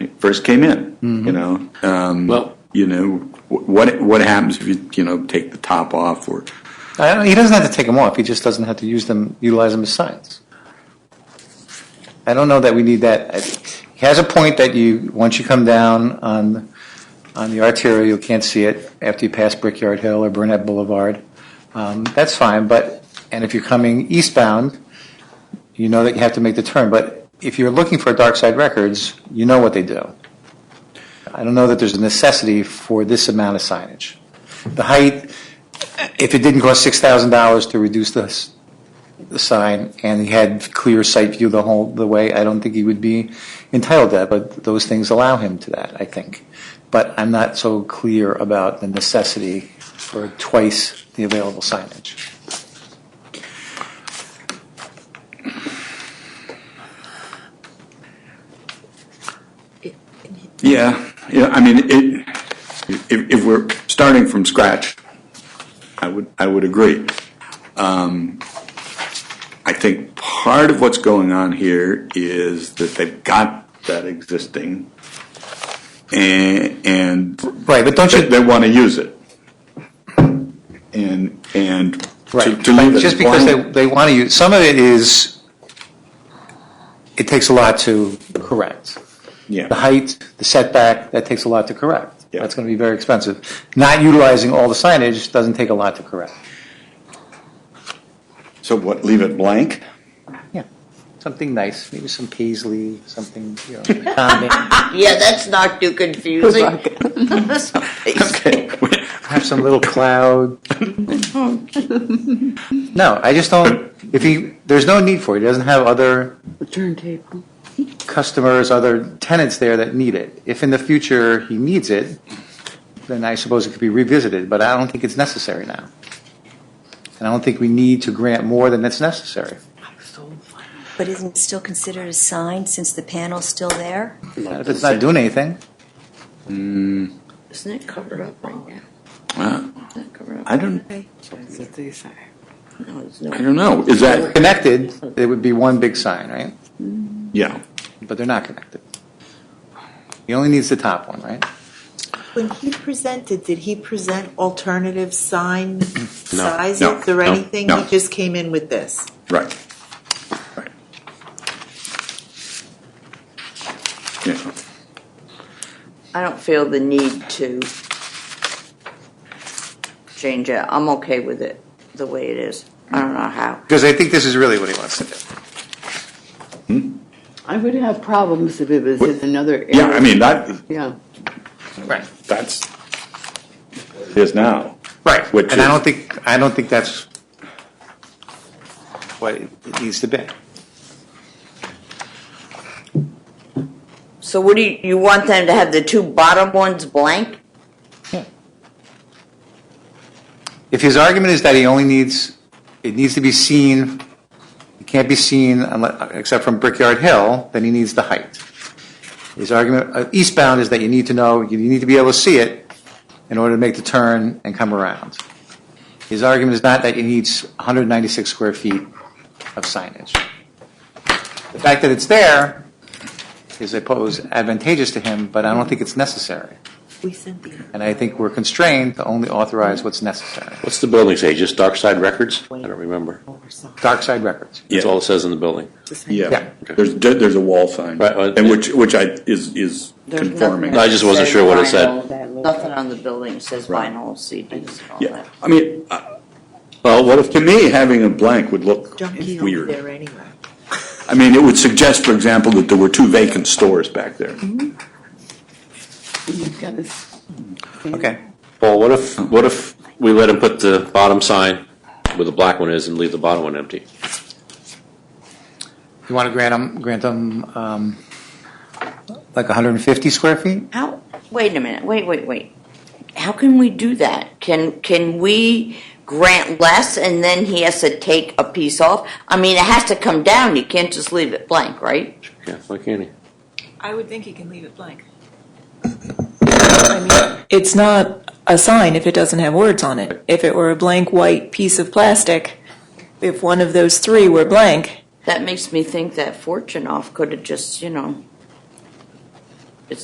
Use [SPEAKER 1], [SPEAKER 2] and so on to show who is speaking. [SPEAKER 1] first came in,
[SPEAKER 2] Mm-hmm.
[SPEAKER 1] you know? Um,
[SPEAKER 3] Well-
[SPEAKER 1] You know, wh- what, what happens if you, you know, take the top off or,
[SPEAKER 2] I don't, he doesn't have to take them off. He just doesn't have to use them, utilize them as signs. I don't know that we need that. I- He has a point that you, once you come down on, on the arterial, you can't see it after you pass Brickyard Hill or Burnett Boulevard. Um, that's fine, but, and if you're coming eastbound, you know that you have to make the turn. But if you're looking for dark side records, you know what they do. I don't know that there's a necessity for this amount of signage. The height, if it didn't cost six thousand dollars to reduce the, s- the sign and he had clear sight view the whole the way, I don't think he would be entitled to that. But those things allow him to that, I think. But I'm not so clear about the necessity for twice the available signage.
[SPEAKER 1] yeah, yeah, I mean, it, if, if we're starting from scratch, I would, I would agree. Um, I think part of what's going on here is that they've got that existing and, and
[SPEAKER 2] Right, but don't
[SPEAKER 1] they,
[SPEAKER 2] you?
[SPEAKER 1] they want to use it. And, and to-
[SPEAKER 2] Right,
[SPEAKER 1] to leave
[SPEAKER 2] but
[SPEAKER 1] it
[SPEAKER 2] just because they,
[SPEAKER 1] blank-
[SPEAKER 2] they want to use some of it is. It takes a lot to correct. the
[SPEAKER 1] Yeah,
[SPEAKER 2] height, the setback, that takes a lot to correct.
[SPEAKER 1] Yeah.
[SPEAKER 2] That's going to be very expensive. Not utilizing all the signage doesn't take a lot to correct.
[SPEAKER 1] so what, leave it blank?
[SPEAKER 2] Yeah, something nice, maybe some paisley, something, you know, calming,
[SPEAKER 4] Yeah, that's not too confusing.
[SPEAKER 1] Okay.
[SPEAKER 2] have some little cloud. No, I just don't, if he, there's no need for it. He doesn't have other
[SPEAKER 4] Turntable.
[SPEAKER 2] customers, other tenants there that need it. If in the future he needs it, then I suppose it could be revisited, but I don't think it's necessary now. And I don't think we need to grant more than that's necessary.
[SPEAKER 5] But isn't it still considered a sign since the panel's still there?
[SPEAKER 2] If it's not doing anything,
[SPEAKER 4] Isn't it covered up right now?
[SPEAKER 1] Wow.
[SPEAKER 4] Isn't it covered up?
[SPEAKER 1] I don't,
[SPEAKER 4] That's what they say. No, it's
[SPEAKER 1] I
[SPEAKER 4] no.
[SPEAKER 1] don't know, is that,
[SPEAKER 2] connected, it would be one big sign, right?
[SPEAKER 1] yeah,
[SPEAKER 2] But they're not connected. He only needs the top one, right?
[SPEAKER 6] When he presented, did he present alternative sign
[SPEAKER 1] No,
[SPEAKER 6] sizes or
[SPEAKER 1] no,
[SPEAKER 6] anything?
[SPEAKER 1] no.
[SPEAKER 6] He just came in with this.
[SPEAKER 1] right. Right. Yeah,
[SPEAKER 4] I don't feel the need to change it. I'm okay with it the way it is. I don't know how.
[SPEAKER 2] Because I think this is really what he wants to do.
[SPEAKER 7] I would have problems if it was in another area.
[SPEAKER 1] yeah, I mean, that,
[SPEAKER 7] Yeah.
[SPEAKER 2] Right.
[SPEAKER 1] that's, it is now.
[SPEAKER 2] Right.
[SPEAKER 1] Which
[SPEAKER 2] And I
[SPEAKER 1] is-
[SPEAKER 2] don't think, I don't think that's what it needs to be.
[SPEAKER 4] So what do you, you want them to have the two bottom ones blank?
[SPEAKER 2] If his argument is that he only needs, it needs to be seen, it can't be seen unless, except from Brickyard Hill, then he needs the height. His argument uh, eastbound is that you need to know, you need to be able to see it in order to make the turn and come around. His argument is not that he needs 196 square feet of signage. The fact that it's there is, I suppose, advantageous to him, but I don't think it's necessary.
[SPEAKER 6] We sent the.
[SPEAKER 2] And I think we're constrained to only authorize what's necessary.
[SPEAKER 3] What's the building say? Just Dark Side Records? I don't remember.
[SPEAKER 2] Dark Side Records.
[SPEAKER 3] That's all it says in the building.
[SPEAKER 1] Yeah,
[SPEAKER 2] Yeah.
[SPEAKER 1] there's, there's a wall sign,
[SPEAKER 3] Right, well,
[SPEAKER 1] and which, which I, is, is
[SPEAKER 4] There's nothing
[SPEAKER 1] conforming.
[SPEAKER 4] that
[SPEAKER 3] I just wasn't
[SPEAKER 4] says
[SPEAKER 3] sure what it said.
[SPEAKER 4] vinyl. Nothing on the building says vinyl CDs and all
[SPEAKER 1] Yeah,
[SPEAKER 4] that.
[SPEAKER 1] I mean, uh, well, what if, to me, having a blank would look
[SPEAKER 6] Junkie over
[SPEAKER 1] weird.
[SPEAKER 6] there anyway.
[SPEAKER 1] I mean, it would suggest, for example, that there were two vacant stores back there.
[SPEAKER 7] You've got this.
[SPEAKER 2] Okay.
[SPEAKER 3] Paul, what if, what if we let him put the bottom sign where the black one is and leave the bottom one empty?
[SPEAKER 2] You want to grant them, grant them, um, like 150 square feet?
[SPEAKER 4] How, wait a minute, wait, wait, wait. How can we do that? Can, can we grant less and then he has to take a piece off? I mean, it has to come down, you can't just leave it blank, right?
[SPEAKER 3] Yeah, why can't he?
[SPEAKER 8] I would think you can leave it blank.
[SPEAKER 9] it's not a sign if it doesn't have words on it. If it were a blank white piece of plastic, if one of those three were blank,
[SPEAKER 4] That makes me think that Fortunoff could have just, you know,